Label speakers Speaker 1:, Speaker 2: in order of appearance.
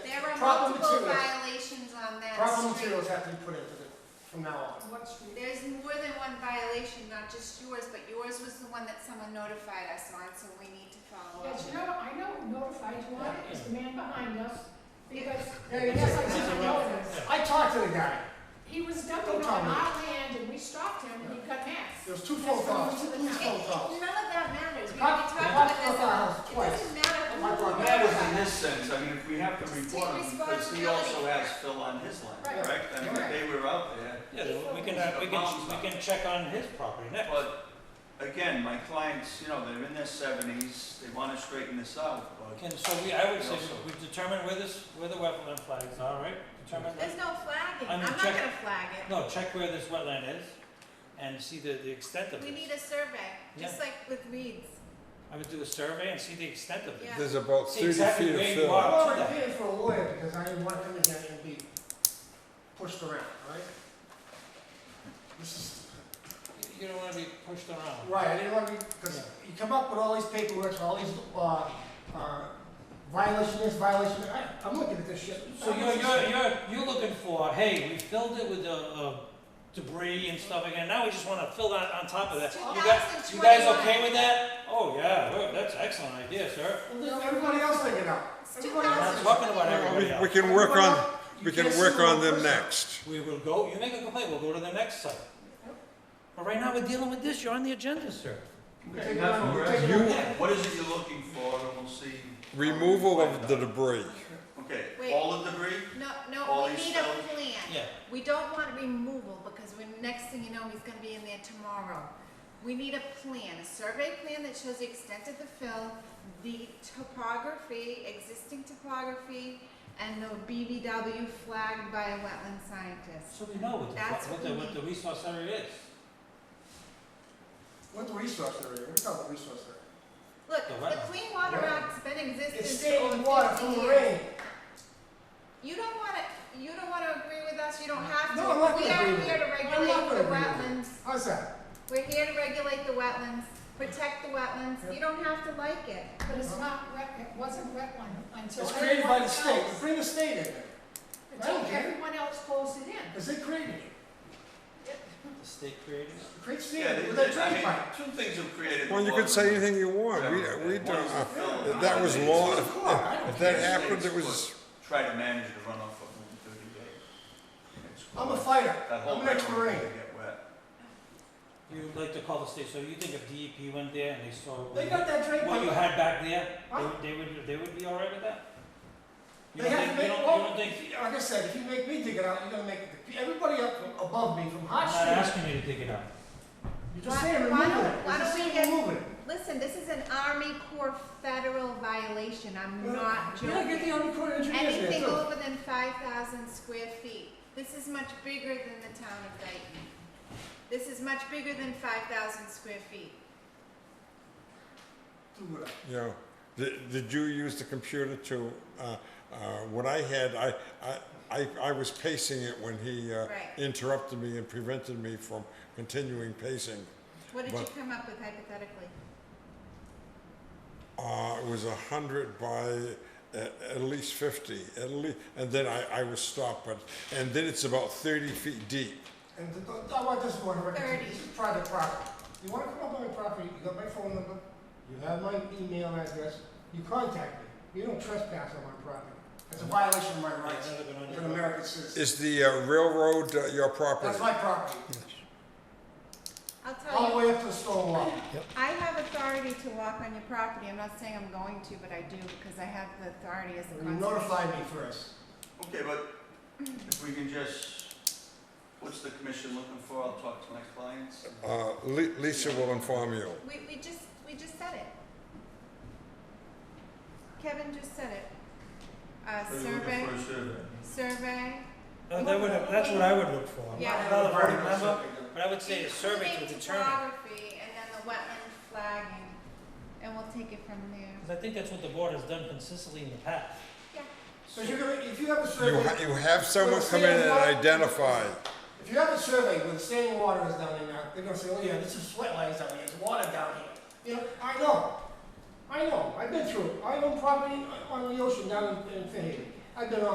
Speaker 1: Proper
Speaker 2: multiple
Speaker 1: materials.
Speaker 2: violations on that
Speaker 1: Proper
Speaker 2: street.
Speaker 1: materials have to be put into the, from now on.
Speaker 3: What street?
Speaker 2: There's more than one violation, not just yours, but yours was the one that someone notified us on, so we need to follow up.
Speaker 3: Yes, you know, I know notified you on it, it's the man behind us, because,
Speaker 1: Yeah, you
Speaker 3: yes,
Speaker 1: said-
Speaker 3: I didn't notice.
Speaker 1: I talked to the guy.
Speaker 3: He was
Speaker 1: Don't
Speaker 3: dumping
Speaker 1: tell
Speaker 3: on
Speaker 1: me.
Speaker 3: our land and we stopped him and he got mad.
Speaker 1: There was two phone calls, two
Speaker 3: That's
Speaker 1: phone calls.
Speaker 2: None of that matters, we
Speaker 1: Cop-
Speaker 2: already
Speaker 1: the
Speaker 2: talked
Speaker 1: cop
Speaker 2: about this.
Speaker 1: broke our house
Speaker 2: It
Speaker 1: twice.
Speaker 2: doesn't matter who.
Speaker 1: Oh My
Speaker 4: It
Speaker 1: brother.
Speaker 4: matters in this sense, I mean, if we have to report him,
Speaker 2: Take
Speaker 4: because he also
Speaker 2: responsibility.
Speaker 4: has Phil on his line,
Speaker 3: Right.
Speaker 4: correct? I mean,
Speaker 1: Correct.
Speaker 4: they were out there,
Speaker 5: Yeah, then we can, uh, we can, we can check on his property next.
Speaker 4: but again, my clients, you know, they're in their seventies, they wanna straighten this out, but
Speaker 5: Can, so we, I would say, we determine where this, where the wetland flags are, right? Determine that.
Speaker 2: There's no flagging,
Speaker 5: I
Speaker 2: I'm
Speaker 5: mean,
Speaker 2: not
Speaker 5: check-
Speaker 2: gonna flag it.
Speaker 5: No, check where this wetland is and see the, the extent of
Speaker 2: We need
Speaker 5: this.
Speaker 2: a survey, just
Speaker 5: Yeah.
Speaker 2: like with weeds.
Speaker 5: I would do a survey and see the extent of
Speaker 2: Yeah.
Speaker 5: it.
Speaker 6: There's about
Speaker 5: See
Speaker 6: 30
Speaker 5: exactly
Speaker 6: feet of
Speaker 5: where you
Speaker 6: fill.
Speaker 5: are.
Speaker 1: I'm already paying for a lawyer because I didn't want him to get and be pushed around, right? This is,
Speaker 5: You don't wanna be pushed around.
Speaker 1: right, I didn't want to, because
Speaker 5: Yeah.
Speaker 1: you come up with all these paperwork, all these, uh, uh, violation this, violation, that. I, I'm looking at this shit.
Speaker 5: So you're, you're, you're, you're looking for, hey, we filled it with, uh, uh, debris and stuff again, now we just wanna fill that on top of that. You guys, you guys
Speaker 2: 2021.
Speaker 5: okay with that? Oh, yeah, well, that's excellent idea, sir.
Speaker 1: Everybody else thinking out.
Speaker 2: It's
Speaker 1: Everybody else
Speaker 5: Not
Speaker 2: 2000.
Speaker 1: thinking out.
Speaker 5: talking about everybody
Speaker 6: We,
Speaker 5: else.
Speaker 6: we can work on,
Speaker 1: You
Speaker 6: we can
Speaker 1: can't
Speaker 6: work
Speaker 1: sue
Speaker 6: on
Speaker 1: one
Speaker 6: them
Speaker 1: person.
Speaker 6: next.
Speaker 5: We will go, you make a complaint, we'll go to the next site. But right now, we're dealing with this, you're on the agenda, sir.
Speaker 1: Okay,
Speaker 4: Not
Speaker 1: now,
Speaker 4: for
Speaker 1: take it
Speaker 6: You-
Speaker 1: out.
Speaker 4: what is it you're looking for, and we'll see. how we
Speaker 6: Removal
Speaker 4: find
Speaker 6: of the
Speaker 4: out.
Speaker 6: debris.
Speaker 4: Okay,
Speaker 2: Wait.
Speaker 4: all the debris?
Speaker 2: No,
Speaker 4: All
Speaker 2: no, we
Speaker 4: these
Speaker 2: need a
Speaker 4: stones?
Speaker 2: plan.
Speaker 5: Yeah.
Speaker 2: We don't want removal, because when, next thing you know, he's gonna be in there tomorrow. We need a plan, a survey plan that shows the extent of the fill, the topography, existing topography, and the BBW flagged by a wetland scientist.
Speaker 5: So we know what the,
Speaker 2: That's
Speaker 5: what
Speaker 2: what
Speaker 5: the,
Speaker 2: we
Speaker 5: what the
Speaker 2: need.
Speaker 5: resource area is.
Speaker 1: What the resource area, we call it resource area.
Speaker 2: Look,
Speaker 5: The
Speaker 2: the
Speaker 5: wetland.
Speaker 2: Clean Water
Speaker 1: Yeah.
Speaker 2: Act's been in
Speaker 1: It's
Speaker 2: existence over
Speaker 1: standing water
Speaker 2: fifty
Speaker 1: from the
Speaker 2: years.
Speaker 1: rain.
Speaker 2: You don't wanna, you don't wanna agree with us, you don't have to.
Speaker 1: No, I'm not
Speaker 2: We
Speaker 1: gonna agree
Speaker 2: are
Speaker 1: with
Speaker 2: here
Speaker 1: you.
Speaker 2: to
Speaker 1: I'm not
Speaker 2: regulate
Speaker 1: gonna
Speaker 2: the
Speaker 1: agree with you.
Speaker 2: wetlands.
Speaker 1: How's that?
Speaker 2: We're here to regulate the wetlands, protect the wetlands, you don't have to like it.
Speaker 3: But it's not wet, it wasn't wetland until.
Speaker 1: It's created by the
Speaker 3: everyone
Speaker 1: state,
Speaker 3: else-
Speaker 1: bring the state in there,
Speaker 3: Until
Speaker 1: Right.
Speaker 3: everyone else closed it in.
Speaker 1: because they created it.
Speaker 5: The state created it.
Speaker 1: Create
Speaker 4: Yeah,
Speaker 1: standard
Speaker 4: they-
Speaker 1: with
Speaker 4: they-
Speaker 1: that
Speaker 4: I
Speaker 1: drain
Speaker 4: mean,
Speaker 1: pipe.
Speaker 4: two things have created.
Speaker 6: Well, you could say anything you want. We, we don't, uh, if that was law, if, if- if that happened, it was,
Speaker 4: Try to manage the runoff of thirty days. It's
Speaker 1: I'm a
Speaker 4: close.
Speaker 1: fighter,
Speaker 4: That whole
Speaker 1: I'm an ex-marine.
Speaker 4: area will get wet.
Speaker 5: You would like to call the state, so you think if DEP went there and they saw what
Speaker 1: They
Speaker 5: you-
Speaker 1: got that drain
Speaker 5: what you
Speaker 1: pipe,
Speaker 5: had back there,
Speaker 1: Huh?
Speaker 5: they, they would, they would be all right with that? You
Speaker 1: they
Speaker 5: don't
Speaker 1: have to
Speaker 5: think- you
Speaker 1: make,
Speaker 5: don't- you
Speaker 1: well,
Speaker 5: don't think-
Speaker 1: like I said, if you make me dig it out, you're gonna make everybody up from above me from
Speaker 5: I'm
Speaker 1: hot
Speaker 5: not
Speaker 1: streets.
Speaker 5: asking you to dig it up.
Speaker 1: You're just
Speaker 2: Why-
Speaker 1: saying
Speaker 2: why
Speaker 1: remove it,
Speaker 2: don't- why
Speaker 1: you're just
Speaker 2: don't we
Speaker 1: saying
Speaker 2: get-
Speaker 1: remove it.
Speaker 2: Listen, this is an Army Corps federal violation, I'm not
Speaker 1: Yeah,
Speaker 2: joking.
Speaker 1: get the Army Corps of Engineers there
Speaker 2: Anything
Speaker 1: too.
Speaker 2: over than five thousand square feet, this is much bigger than the town of Dayton. This is much bigger than five thousand square feet.
Speaker 1: Do what I-
Speaker 6: you know, did, did you use the computer to, uh, uh, what I had, I, I, I, I was pacing it when he, uh,
Speaker 2: Right.
Speaker 6: interrupted me and prevented me from continuing pacing.
Speaker 2: What did you
Speaker 6: But-
Speaker 2: come up with hypothetically?
Speaker 6: Uh, it was a hundred by at, at least fifty, at least, and then I, I was stopped, but, and then it's about thirty feet deep.
Speaker 1: And th- th- I want this one, to
Speaker 2: Thirty.
Speaker 1: this is private property. You wanna come up on my property, you got my phone number, you have my email address, you contact me. You don't trespass on my property. That's a
Speaker 6: Mm-hmm.
Speaker 1: violation of my rights
Speaker 5: Another good one.
Speaker 1: as an American citizen.
Speaker 6: Is the uh, railroad uh, your property?
Speaker 1: That's my property,
Speaker 2: I'll tell
Speaker 1: all
Speaker 2: you.
Speaker 1: the way up to the stone wall.
Speaker 2: I have authority to walk on your property, I'm not saying I'm going to, but I do, because I have the authority as a
Speaker 1: You
Speaker 2: conservation.
Speaker 1: notify me first.
Speaker 4: Okay, but if we can just, what's the commission looking for? I'll talk to my clients.
Speaker 6: Uh, Li- Lisa will inform you.
Speaker 2: We, we just, we just said it. Kevin just said it. Uh,
Speaker 4: Are you looking
Speaker 2: survey,
Speaker 4: for a survey?
Speaker 2: survey,
Speaker 5: Uh, that would, that's what I would look for.
Speaker 2: Yeah.
Speaker 5: Not another party
Speaker 1: Vertical
Speaker 5: member,
Speaker 1: survey.
Speaker 5: but I would say a survey to
Speaker 2: including
Speaker 5: determine.
Speaker 2: topography, and then the wetland flagging, and we'll take it from there.
Speaker 5: Because I think that's what the board has done consistently in the past.
Speaker 2: Yeah,
Speaker 1: So you're gonna, if you have a
Speaker 6: You, ha-
Speaker 1: survey,
Speaker 6: you have someone come in and identify.
Speaker 1: if you have a survey where the standing water is down there now, they're gonna say, oh yeah, this is wetlands down here, there's water down here. You know, I know, I know, I've been through it, I own property on the ocean down in in Fairhaven. I've been on